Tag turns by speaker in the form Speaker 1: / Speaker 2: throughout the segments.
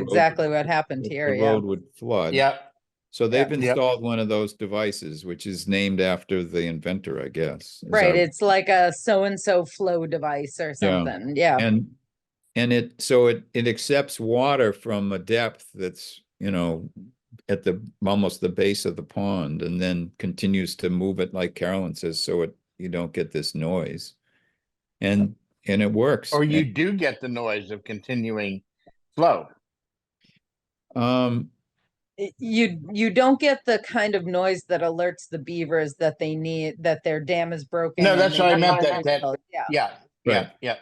Speaker 1: road-
Speaker 2: exactly what happened
Speaker 1: the- the
Speaker 2: here, yeah.
Speaker 1: Road would flood.
Speaker 3: Yep,
Speaker 1: So they've
Speaker 3: yeah.
Speaker 1: installed one of those devices, which is named after the inventor, I guess. is
Speaker 2: Right,
Speaker 1: our-
Speaker 2: it's like a so-and-so flow device or something, yeah.
Speaker 1: And, and it, so it, it accepts water from a depth that's, you know, at the, almost the base of the pond and then continues to move it like Carolyn says, so it, you don't get this noise. And, and it works.
Speaker 3: or you do get the noise of continuing flow.
Speaker 1: Um,
Speaker 2: Y- You, you don't get the kind of noise that alerts the beavers that they need, that their dam is broken.
Speaker 3: No,
Speaker 2: and
Speaker 3: that's
Speaker 2: they
Speaker 3: what I
Speaker 2: need
Speaker 3: meant,
Speaker 2: to
Speaker 3: that- that-
Speaker 2: rebuild, Yeah,
Speaker 3: Yeah, yeah, yeah,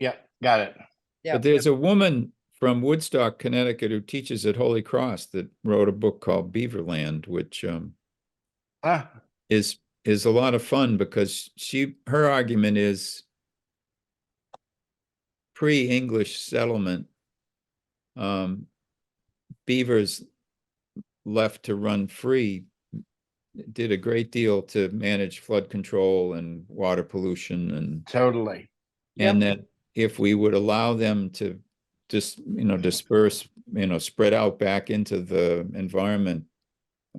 Speaker 3: yeah, got it.
Speaker 2: Yep.
Speaker 1: But there's a woman from Woodstock, Connecticut, who teaches at Holy Cross that wrote a book called Beaverland, which um
Speaker 3: Huh,
Speaker 1: is is a lot of fun because she her argument is pre-English settlement um beavers left to run free did a great deal to manage flood control and water pollution and
Speaker 3: totally.
Speaker 1: and that if we would allow them to just, you know, disperse, you know, spread out back into the environment,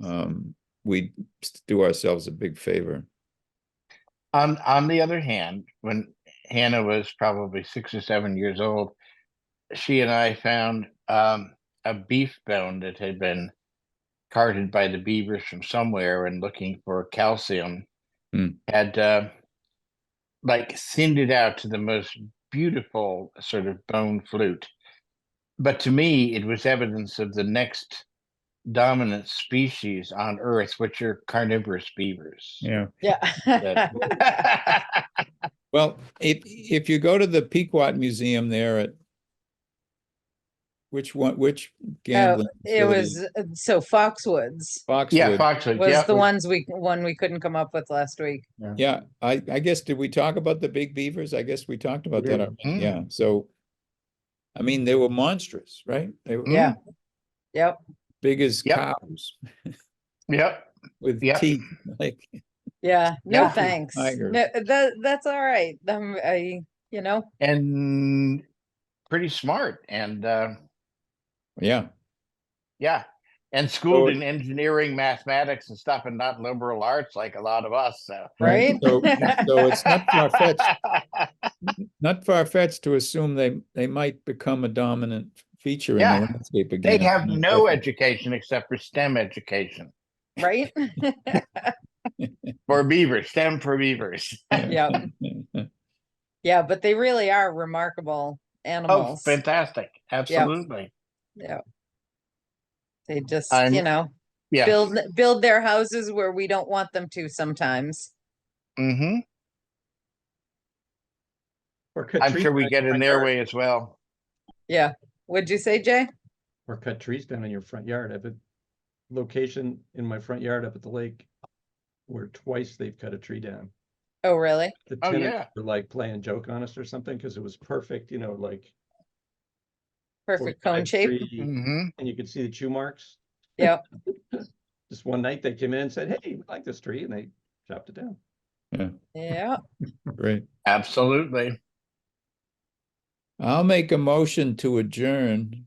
Speaker 1: um, we'd s- do ourselves a big favor.
Speaker 3: On, on the other hand, when Hannah was probably six or seven years old, she and I found um, a beef bone that had been carted by the beavers from somewhere and looking for calcium
Speaker 1: Hmm.
Speaker 3: had uh, like thinned it out to the most beautiful sort of bone flute. But to me, it was evidence of the next dominant species on Earth, which are carnivorous beavers.
Speaker 1: Yeah.
Speaker 2: yeah.
Speaker 3: that-
Speaker 1: Well, if, if you go to the Pequot Museum there at which one, which gambling?
Speaker 2: It
Speaker 1: facility?
Speaker 2: was, uh, so Foxwoods
Speaker 3: Oh. Yeah,
Speaker 1: Foxwood.
Speaker 3: Foxwood,
Speaker 2: was
Speaker 3: yeah.
Speaker 2: the ones we, one we couldn't come up with last week.
Speaker 1: Yeah, I, I guess, did we talk about the big beavers? I guess we talked about that.
Speaker 3: did.
Speaker 1: already. Yeah, so. I mean, they were monstrous, right? They
Speaker 3: Mm.
Speaker 1: were
Speaker 2: Yeah. Yep,
Speaker 1: Big as
Speaker 3: Mm-hmm. Yep.
Speaker 1: cows.
Speaker 3: Yep,
Speaker 1: with
Speaker 3: Yeah.
Speaker 1: teeth, like,
Speaker 2: yeah, no
Speaker 3: Yeah.
Speaker 2: thanks.
Speaker 1: Tigers.
Speaker 2: No, that, that's all right, um, I, you know,
Speaker 3: and pretty smart and, uh,
Speaker 1: yeah,
Speaker 3: yeah. And
Speaker 1: So-
Speaker 3: schooled in engineering, mathematics and stuff and not liberal arts like a lot of us, so.
Speaker 2: right?
Speaker 1: So, so it's not far fetched, not far fetched to assume they, they might become a dominant feature in the
Speaker 3: Yeah.
Speaker 1: landscape again.
Speaker 3: They
Speaker 1: at
Speaker 3: have
Speaker 1: some
Speaker 3: no
Speaker 1: point.
Speaker 3: education except for STEM education,
Speaker 2: Right?
Speaker 3: for beavers, STEM for beavers.
Speaker 2: Yeah, yeah, but they really are remarkable
Speaker 3: Oh,
Speaker 2: animals.
Speaker 3: fantastic, absolutely.
Speaker 2: Yeah. They just,
Speaker 3: I'm-
Speaker 2: you know,
Speaker 3: Yeah.
Speaker 2: build, build their houses where we don't want them to sometimes.
Speaker 3: Mm-hmm.
Speaker 4: Or cut
Speaker 3: I'm
Speaker 4: trees
Speaker 3: sure we
Speaker 4: down
Speaker 3: get
Speaker 4: your
Speaker 3: in
Speaker 4: front
Speaker 3: their
Speaker 4: yard,
Speaker 3: way as well.
Speaker 2: Yeah, would you say, Jay?
Speaker 4: Or cut trees down in your front yard. I have a location in my front yard up at the lake where twice they've cut a tree down.
Speaker 2: Oh, really?
Speaker 4: The
Speaker 3: Oh,
Speaker 4: tenants
Speaker 3: yeah.
Speaker 4: were like playing joke on us or something because it was perfect, you know, like.
Speaker 2: Perfect cone
Speaker 4: 45
Speaker 2: shape.
Speaker 4: tree,
Speaker 3: Mm-hmm.
Speaker 4: And you could see the chew marks.
Speaker 2: Yep.
Speaker 4: Just one night they came in and said, hey, we like this tree, and they chopped it down.
Speaker 2: Yeah,
Speaker 1: Great.
Speaker 3: Absolutely.
Speaker 1: I'll make a motion to adjourn.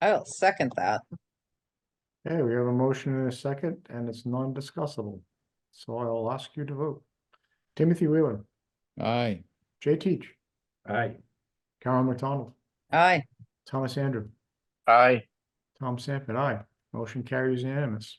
Speaker 2: I'll second that.
Speaker 5: Okay, we have a motion and a second, and it's non-discussable. So I'll ask you to vote. Timothy Wheeler,
Speaker 1: Aye.
Speaker 5: Jay Teach,
Speaker 4: All right.
Speaker 5: Carol McDonald,
Speaker 2: Aye,
Speaker 5: Thomas Andrew,
Speaker 3: Aye.
Speaker 5: Tom Sanford, aye. Motion carries unanimous.